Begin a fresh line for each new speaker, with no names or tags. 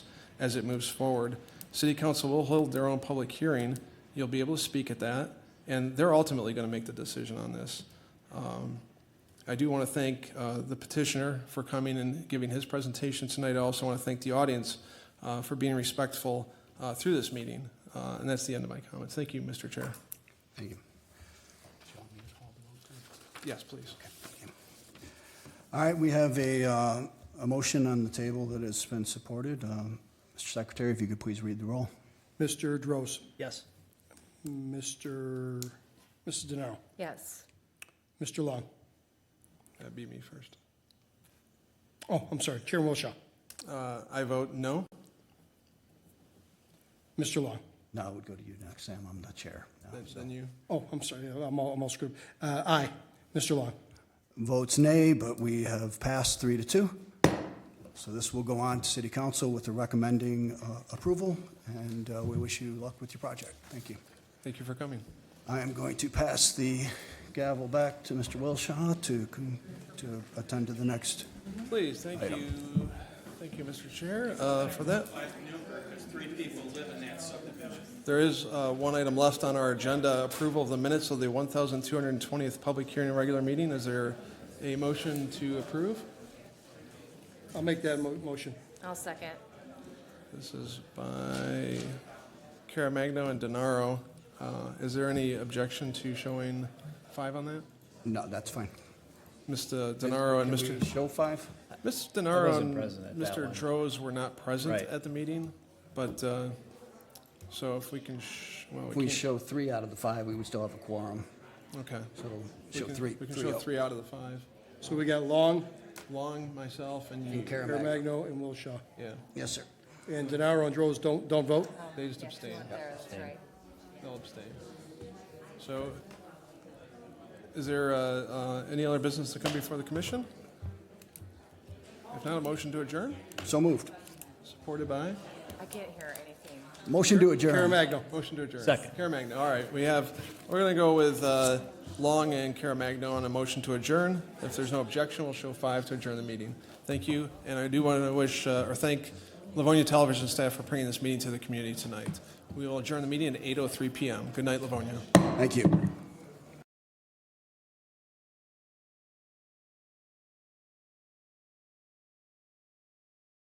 as it moves forward. City council will hold their own public hearing. You'll be able to speak at that, and they're ultimately going to make the decision on this. Um, I do want to thank uh, the petitioner for coming and giving his presentation tonight. I also want to thank the audience uh, for being respectful uh, through this meeting. Uh, And that's the end of my comments. Thank you, Mr. Chair.
Thank you.
Yes, please.
All right, we have a, uh, a motion on the table that has been supported. Um, Mr. Secretary, if you could please read the roll.
Mr. Droz,
Yes.
Mr., Mrs. DeNaro,
Yes.
Mr. Long.
That'd be me first.
Oh, I'm sorry, Chairman Wilshaw,
Uh, I vote no.
Mr. Long.
No, I would go to you next, Sam. I'm the chair. now,
Then-
so.
Then you,
Oh, I'm sorry, I'm all, I'm all screwed. Uh, aye, Mr. Long.
Votes nay, but we have passed three to two. So this will go on to city council with the recommending uh, approval, and uh, we wish you luck with your project. Thank you.
thank you for coming.
I am going to pass the gavel back to Mr. Wilshaw to, con- to attend to the next.
Please, thank you. Thank you, Mr. Chair, uh, for that. There is uh, one item left on our agenda, approval of the minutes of the 1,220th public hearing and regular meeting. Is there a motion to approve?
I'll make that mo- motion.
I'll second.
This is by Caramagno and Denaro. Uh, Is there any objection to showing five on that?
No, that's fine.
Mr. Denaro and Mr.
Can we Show five?
Ms. Denaro
wasn't
and
present at that
Mr.
one.
Droz were not present
Right.
at the meeting, but, uh, so if we can, sh- well,
If
we
we
can't.
show three out of the five, we would still have a quorum.
Okay.
So
We
show
can-
three.
We can
three oh.
show
out.
three out of the five.
So we got Long,
Long, myself, and you.
And Karen.
Caremagno, and Wilshaw.
Yeah,
Yes, sir.
And DeNaro and Droz don't, don't vote?
they just
Yeah, 'cause
abstain.
one there is right.
They'll abstain. So, is there uh, uh, any other business to come before the commission? If not, a motion to adjourn,
So moved.
supported by?
I can't hear anything.
Motion to adjourn.
Caremagno,
Motion to adjourn.
Second.
Caremagna, all right, we have, we're going to go with uh, Long and Caremagna on a motion to adjourn. If there's no objection, we'll show five to adjourn the meeting. Thank you, and I do want to wish, uh, or thank Livonia Television staff for oh bringing this meeting to the community tonight. We will adjourn the meeting at 8:03 PM. Good night, Livonia.
Thank you.